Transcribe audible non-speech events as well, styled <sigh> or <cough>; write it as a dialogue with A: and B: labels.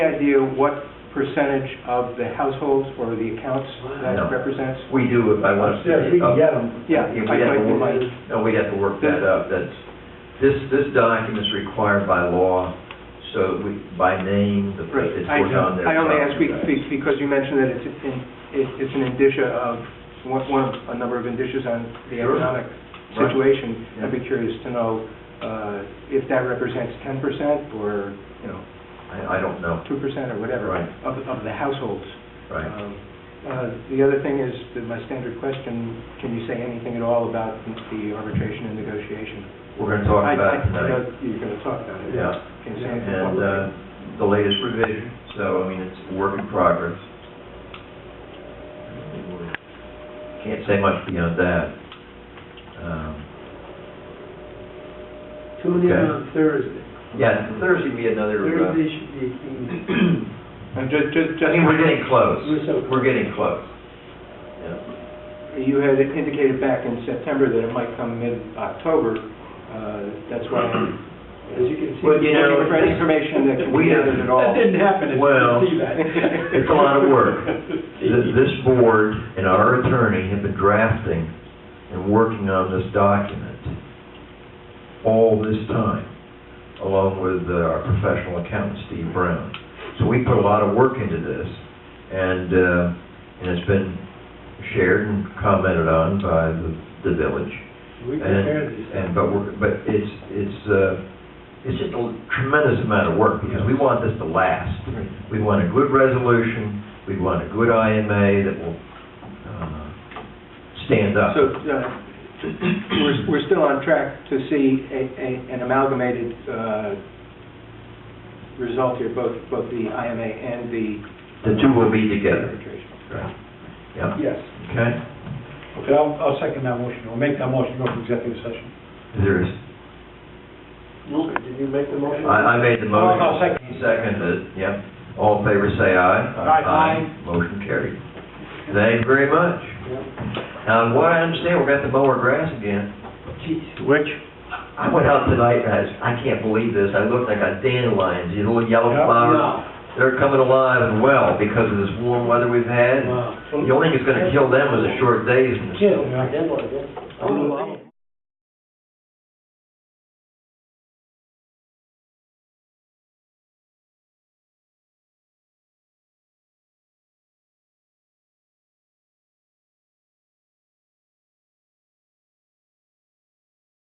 A: idea what percentage of the households or the accounts that
B: No.
A: represents?
B: We do, if I want to.
C: Yeah, we can get them.
A: Yeah,
B: Yeah, we'd
A: I'd
B: have
A: like
B: to
A: to,
B: work-
A: like,
B: uh, No, we'd have to work that up, that's, this, this document's required by law, so we, by name, the,
A: Right.
B: it's
A: I
B: put on there.
A: I only ask be- be- because you mentioned that it's, in- it- it's an indicia of, one, one of a number of indicias on the
B: Sure.
A: economic
B: Right.
A: situation. I'd
B: Yeah.
A: be curious to know uh, if that represents ten percent or, you know,
B: I, I don't know,
A: two percent or whatever
B: Right.
A: of, of the households.
B: right.
A: Um, uh, The other thing is, that my standard question, can you say anything at all about the arbitration and negotiation?
B: We're gonna talk
A: I-
B: about
A: I- I
B: it tonight,
A: know you're going to talk about it.
B: yeah,
A: Can you say anything?
B: and, uh, the latest revision, so, I mean, it's a work in progress. Can't say much beyond that. Um,
C: Tune in
B: Okay.
C: on Thursday.
B: Yeah, Thursday would be another, uh,
C: Thursday should be a key.
A: <clears throat> And ju- ju- just-
B: I mean, we're getting close,
C: We're so-
B: we're getting close. Yeah.
A: You had indicated back in September that it might come mid-October. Uh, That's why, I'm
C: As you can see.
B: Well, you know,
A: looking for any information that can be
B: we-
A: gathered at all.
C: That didn't happen, as you
B: Well,
C: can see that.
B: it's a lot of
C: <laughs>
B: work. Th- This board and our attorney have been drafting and working on this document all this time, along with uh, our professional accountant, Steve Brown. So we put a lot of work into this, and, uh, and it's been shared and commented on by the, the village.
C: We prepared these.
B: And, and, but we're, but it's, it's, uh, it's just a tremendous amount of work, because we want this to last. We want a good resolution, we want a good IMA that will, uh, stand up.
A: So uh, we're we're still on track to see a- a- an amalgamated uh, result here, both both the IMA and the...
B: The two will be together.
A: arbitration.
B: Right. Yeah,
C: Yes.
B: okay.
C: Okay, I'll, I'll second that motion, I'll make that motion, go for executive session.
B: There is,
C: Did you make the motion?
B: I, I made the motion.
C: I'll second.
B: Seconded, yeah. All in favor, say aye.
C: Aye.
B: Motion carried. Thank you very much. Now, what I understand, we're going to mow our grass again.
C: Geez, Which?
B: I went out tonight, and I, s- I can't believe this, I looked, I got dandelions, these little yellow
C: Yeah.
B: flowers. They're coming alive and well because of this warm weather we've had.
C: Wow.
B: The only thing that's gonna kill them is a short days from the snow.
C: Yeah.
B: Oh,